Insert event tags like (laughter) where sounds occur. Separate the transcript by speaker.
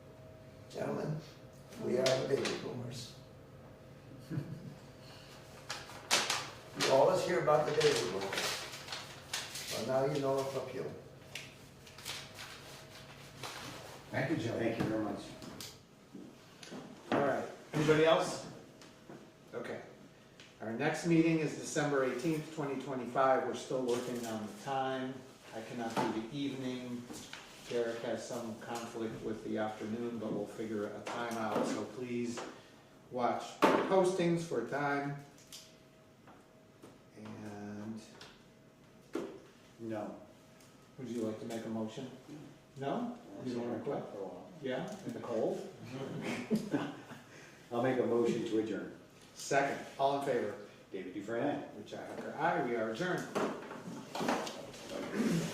Speaker 1: Gentlemen, we are the baby boomers. (laughs) You always hear about the baby boomers. Well, now you know it's up you.
Speaker 2: Thank you, Joe.
Speaker 3: Thank you very much.
Speaker 2: All right, anybody else? Okay. Our next meeting is December eighteenth, twenty twenty-five, we're still working on the time. I cannot do the evening, Derek has some conflict with the afternoon, but we'll figure a time out, so please watch postings for a time. And
Speaker 3: No.
Speaker 2: would you like to make a motion? No? You don't wanna quit?
Speaker 3: For a while.
Speaker 2: Yeah, in the (laughs) cold?
Speaker 3: I'll make a motion to adjourn.
Speaker 2: Second, all in favor?
Speaker 3: David Dufresne, aye.
Speaker 2: Richi Hacker, aye, we are adjourned.